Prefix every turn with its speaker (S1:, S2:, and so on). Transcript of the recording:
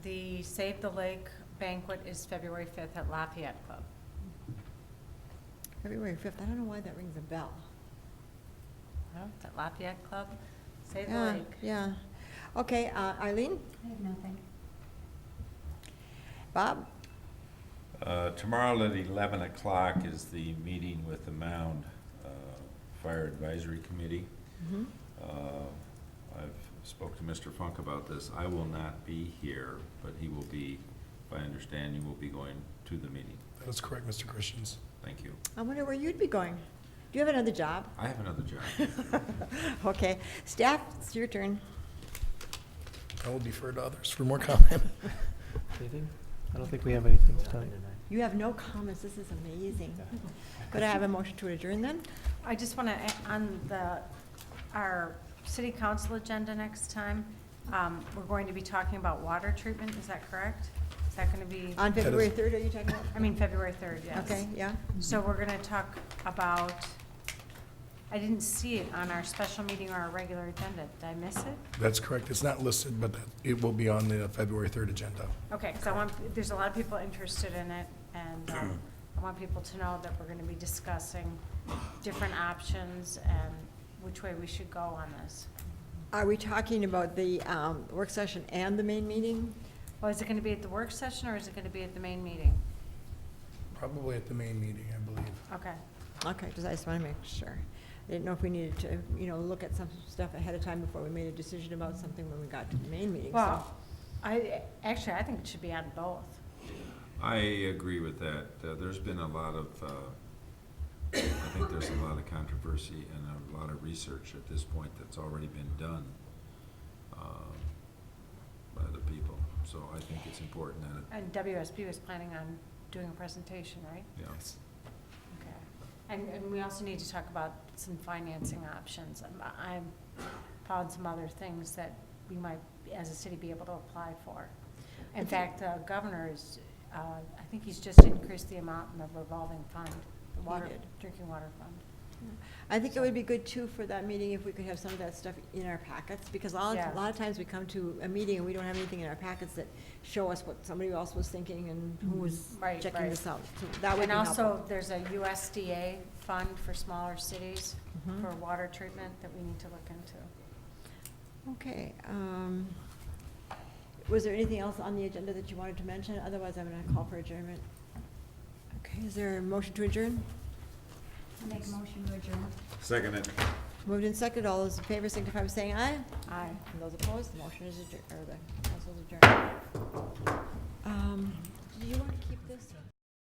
S1: the Save the Lake banquet is February 5th at Lafayette Club.
S2: February 5th, I don't know why that rings a bell.
S1: Huh? At Lafayette Club, Save the
S2: Yeah,
S1: Lake.
S2: Yeah, okay, uh, Eileen,
S3: I have nothing.
S2: Bob,
S4: Uh, Tomorrow at 11 o'clock is the meeting with the Mound uh, Fire Advisory Committee. Uh, I've spoke to Mr. Funk about this. I will not be here, but he will be, if I understand, you will be going to the meeting.
S5: That is correct, Mr. Christians.
S4: Thank you.
S2: I wonder where you'd be going? Do you have another job?
S4: I have another job.
S2: Okay, staff, it's your turn.
S5: I will defer to others for more comment.
S6: Anything? I don't think we have anything tonight.
S2: You have no comments, this is amazing. Could I have a motion to adjourn then?
S1: I just want to, on the, our city council agenda next time, um, we're going to be talking about water treatment, is that correct? Is that going to be,
S2: On
S5: That is-
S2: February 3rd, are you talking about?
S1: I mean, February 3rd, yes.
S2: Okay, yeah,
S1: So we're going to talk about, I didn't see it on our special meeting or our regular agenda. Did I miss it?
S5: That's correct. It's not listed, but that- it will be on the February 3rd agenda.
S1: Okay, because I want, there's a lot of people interested in it, and um, I want people to know that we're going to be discussing different options and which way we should go on this.
S2: are we talking about the um, work session and the main meeting?
S1: Well, is it going to be at the work session, or is it going to be at the main meeting?
S5: Probably at the main meeting, I believe.
S1: Okay,
S2: Okay, just, I just want to make sure. I didn't know if we needed to, you know, look at some stuff ahead of time before we made a decision about something when we got to the main meeting, so.
S1: well, I, actually, I think it should be on both.
S4: I agree with that. Uh, There's been a lot of, uh, I think there's a lot of controversy and a lot of research at this point that's already been done uh, by the people. So I think it's important that, it-
S1: And WSB was planning on doing a presentation, right?
S4: you know,
S1: Okay. And, and we also need to talk about some financing options. Um, I I found some other things that we might, as a city, be able to apply for. In fact, the governor is, uh, I think he's just increased the amount in the revolving fund, the
S2: He
S1: water,
S2: did.
S1: drinking water fund.
S2: I think it would be good too for that meeting if we could have some of that stuff in our packets, because a lot,
S1: Yeah.
S2: a lot of times we come to a meeting and we don't have anything in our packets that show us what somebody else was thinking and who was
S1: Right,
S2: checking
S1: right.
S2: this out. So That would be
S1: And also,
S2: helpful.
S1: there's a USDA fund for smaller cities
S2: Mhm.
S1: for water treatment that we need to look into.
S2: Okay, um, was there anything else on the agenda that you wanted to mention? Otherwise, I'm gonna call for adjournment. Okay, is there a motion to adjourn?
S3: I make a motion to adjourn.
S4: Second it.
S2: Moved and seconded, all those in favor signify by saying aye.
S1: Aye.
S2: And those opposed, the motion is adjourned, or the council is adjourned.